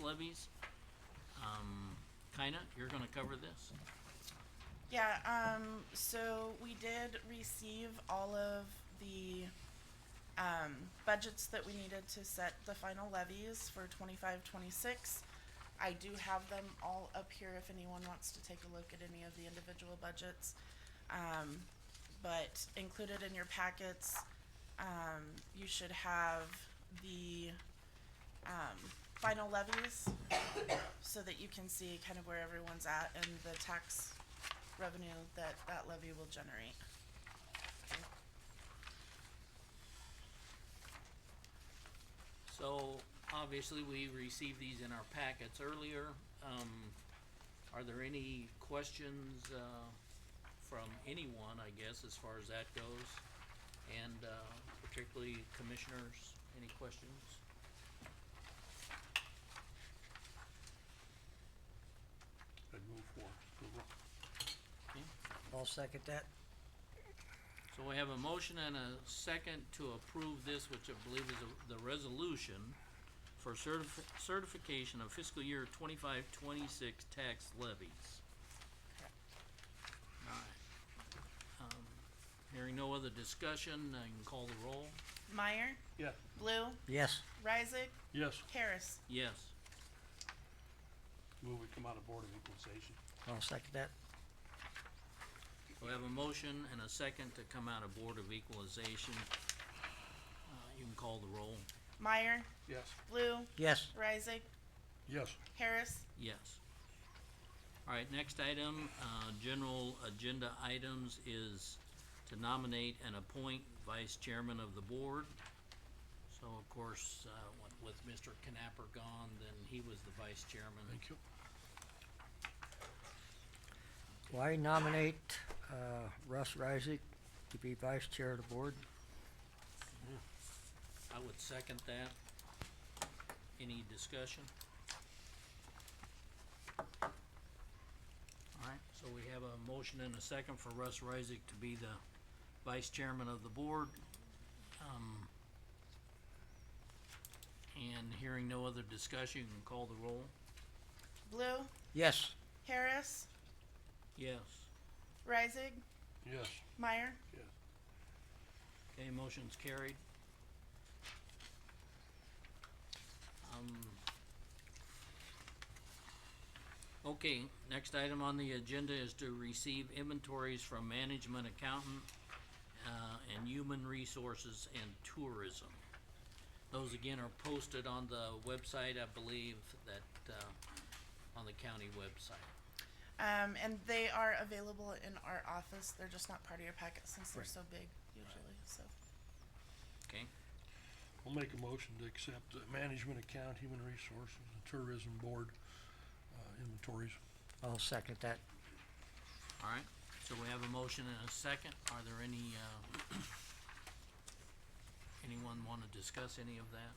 levies. Um, kinda, you're gonna cover this? Yeah, um, so we did receive all of the, um, budgets that we needed to set the final levies for twenty-five, twenty-six. I do have them all up here if anyone wants to take a look at any of the individual budgets. Um, but included in your packets, um, you should have the, um, final levies so that you can see kind of where everyone's at and the tax revenue that that levy will generate. So, obviously, we received these in our packets earlier. Um, are there any questions, uh, from anyone, I guess, as far as that goes? And, uh, particularly commissioners, any questions? I'd move for approval. I'll second that. So we have a motion and a second to approve this, which I believe is a- the resolution for certif- certification of fiscal year twenty-five, twenty-six tax levies. Alright. Um, Hearing no other discussion, I can call the roll. Meyer, Yes. Blue, Yes, Reisig, Yes. Harris. Yes. Move we come out of Board of Equalization. I'll second that. We have a motion and a second to come out of Board of Equalization. Uh, you can call the roll. Meyer, Yes. Blue, Yes, Reisig, Yes. Harris. Yes. All right, next item, uh, general agenda items is to nominate and appoint vice chairman of the board. So of course, uh, with- with Mr. Knapper gone, then he was the vice chairman. you. well, I nominate, uh, Russ Reisig to be vice chair of the board. I would second that. Any discussion? All right, so we have a motion and a second for Russ Reisig to be the vice chairman of the board. Um, And hearing no other discussion, you can call the roll. Blue, Yes, Harris, Yes. Reisig, Yes. Meyer. Yes. Okay, motion's carried. Um, Okay, next item on the agenda is to receive inventories from management accountant, uh, and human resources and tourism. Those again are posted on the website, I believe, that, uh, on the county website. Um, and they are available in our office. They're just not part of your packet since they're so big usually, so. Okay, I'll make a motion to accept the Management Account, Human Resources, and Tourism Board uh, inventories. I'll second that. all right, so we have a motion and a second. Are there any, uh, anyone wanna discuss any of that?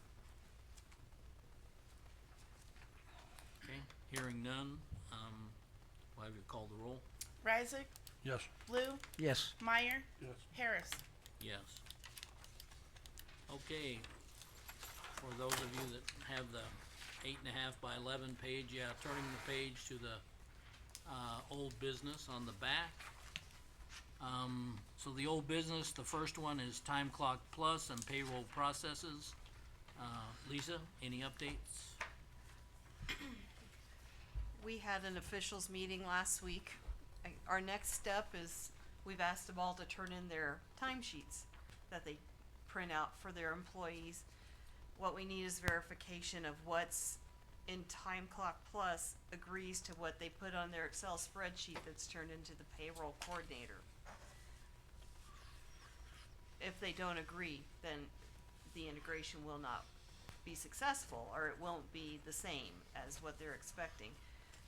Okay, hearing none, um, we'll have you call the roll. Reisig, Yes. Blue, Yes, Meyer, Yes. Harris. Yes. Okay, for those of you that have the eight and a half by eleven page, yeah, turning the page to the, uh, old business on the back. Um, so the old business, the first one is time clock plus and payroll processes. Uh, Lisa, any updates? We had an officials meeting last week. I- Our next step is, we've asked them all to turn in their timesheets that they print out for their employees. What we need is verification of what's in Time Clock Plus agrees to what they put on their Excel spreadsheet that's turned into the payroll coordinator. If they don't agree, then the integration will not be successful, or it won't be the same as what they're expecting.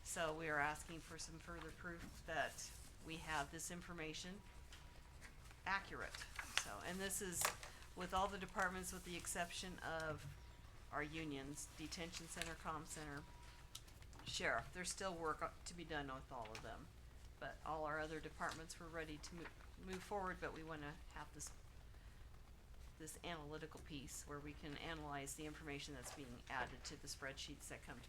So we are asking for some further proof that we have this information accurate. So, and this is with all the departments with the exception of our unions, detention center, com center, sheriff, there's still work o- to be done with all of them. But all our other departments were ready to move, move forward, but we wanna have this, this analytical piece where we can analyze the information that's being added to the spreadsheets that come to